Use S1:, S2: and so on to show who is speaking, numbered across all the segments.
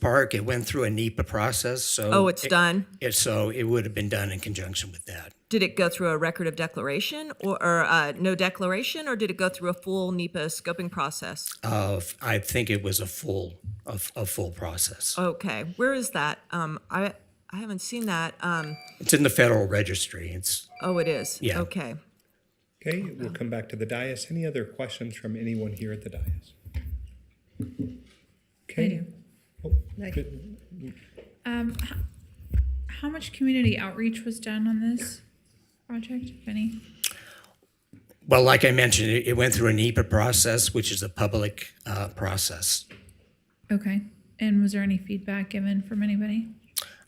S1: park. It went through a NEPA process, so.
S2: Oh, it's done?
S1: it- So it would have been done in conjunction with that.
S2: Did it go through a record of declaration or, or uh, no declaration, or did it go through a full NEPA scoping process?
S1: Of, Uh, I think it was a full, a, a full process.
S2: Okay, where is that? Um, I, I haven't seen that. Um,
S1: It's in the Federal Registry. It's,
S2: oh, it is?
S1: Yeah.
S2: Okay.
S3: Okay, we'll come back to the dais. Any other questions from anyone here at the dais? Okay. Oh, good.
S4: Um, how, how much community outreach was done on this project, if any?
S1: Well, like I mentioned, it, it went through a NEPA process, which is a public uh, process.
S4: Okay. And was there any feedback given from anybody?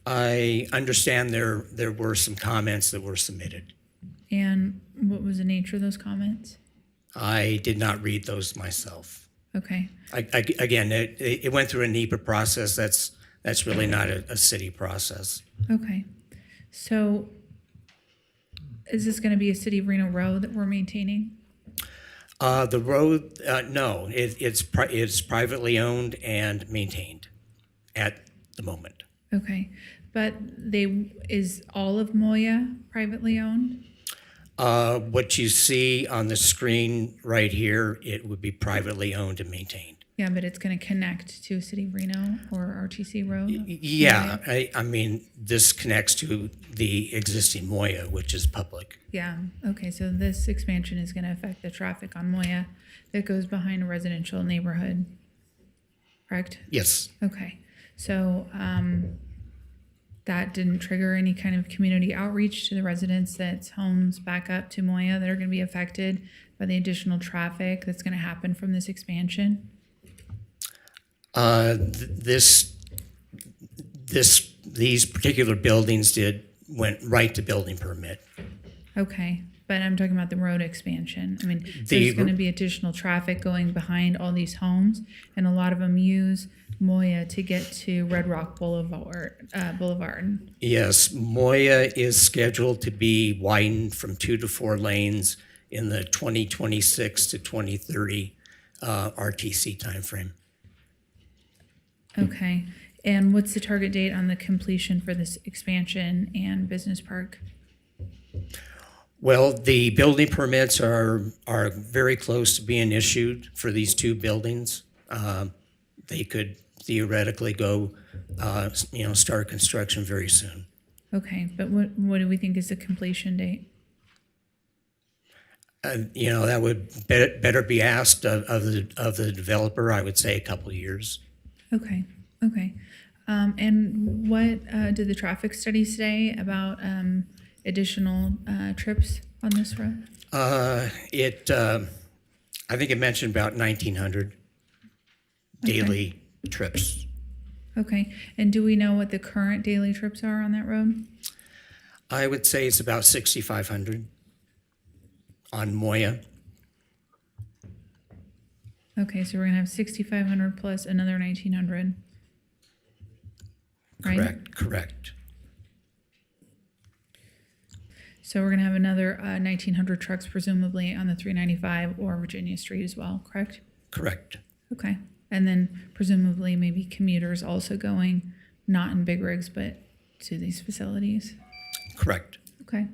S1: I understand there there were some comments that were submitted.
S4: And what was the nature of those comments?
S1: I did not read those myself.
S4: Okay.
S1: I, I, again, it, it went through a NEPA process. That's that's really not a, a city process.
S4: Okay. So is this going to be a city of Reno road that we're maintaining?
S1: Uh, the road, uh, no, it, it's pri- it's privately owned and maintained at the moment.
S4: Okay. But they, is all of Moya privately owned?
S1: Uh, what you see on the screen right here, it would be privately owned and maintained.
S4: Yeah, but it's going to connect to City of Reno or RTC Road?
S1: Yeah, I, I mean, this connects to the existing Moya, which is public.
S4: Yeah, okay, so this expansion is gonna affect the traffic on Moya that goes behind a residential neighborhood, correct?
S1: Yes,
S4: Okay, so, um, that didn't trigger any kind of community outreach to the residents that's homes back up to Moya that are gonna be affected by the additional traffic that's gonna happen from this expansion?
S1: uh, th- this, this, these particular buildings did, went right to building permit.
S4: Okay, but I'm talking about the road expansion. I mean,
S1: The-
S4: there's gonna be additional traffic going behind all these homes, and a lot of them use Moya to get to Red Rock Boulevard, uh, Boulevard.
S1: Yes, Moya is scheduled to be widened from two to four lanes in the 2026 to 2030 uh, RTC timeframe.
S4: Okay, and what's the target date on the completion for this expansion and business park?
S1: Well, the building permits are, are very close to being issued for these two buildings. Um, They could theoretically go, uh, s- you know, start construction very soon.
S4: Okay, but what, what do we think is the completion date?
S1: And, you know, that would better, better be asked of, of the, of the developer, I would say a couple of years.
S4: Okay, okay. Um, and what, uh, did the traffic study say about, um, additional, uh, trips on this road?
S1: Uh, It, um, I think it mentioned about 1,900 daily trips.
S4: Okay, and do we know what the current daily trips are on that road?
S1: I would say it's about 6,500 on Moya.
S4: Okay, so we're gonna have sixty-five hundred plus another nineteen hundred. Right,
S1: Correct, correct.
S4: so we're gonna have another uh, nineteen hundred trucks presumably on the three ninety-five or Virginia Street as well, correct?
S1: Correct.
S4: Okay, and then presumably maybe commuters also going, not in big rigs, but to these facilities.
S1: Correct.
S4: Okay,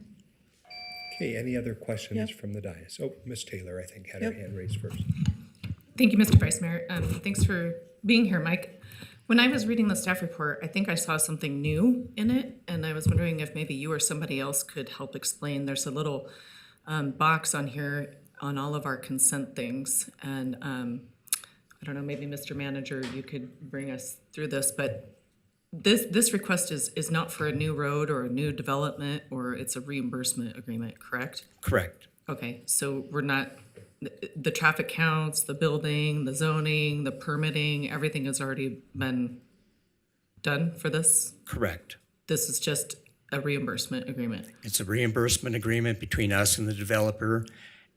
S3: Okay, any other questions from the dais? Oh, Miss Taylor, I think, had her hand raised first.
S5: Thank you, Mr. Vice Mayor. Um, thanks for being here, Mike. When I was reading the staff report, I think I saw something new in it, and I was wondering if maybe you or somebody else could help explain. There's a little um, box on here on all of our consent things, and um, I don't know, maybe Mr. Manager, you could bring us through this, but this this request is is not for a new road or a new development, or it's a reimbursement agreement, correct?
S1: Correct.
S5: Okay, so we're not, the, the traffic counts, the building, the zoning, the permitting, everything has already been done for this?
S1: Correct.
S5: This is just a reimbursement agreement?
S1: It's a reimbursement agreement between us and the developer,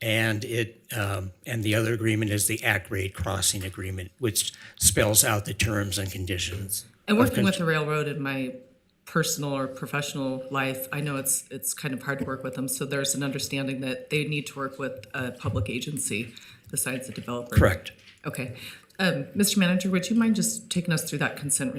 S1: and it, um, and the other agreement is the Act Grade Crossing Agreement, which spells out the terms and conditions.
S5: And working with the railroad in my personal or professional life, I know it's, it's kind of hard to work with them, so there's an understanding that they need to work with a public agency besides the developer?
S1: Correct.
S5: Okay. Um, Mr. Manager, would you mind just taking us through that consent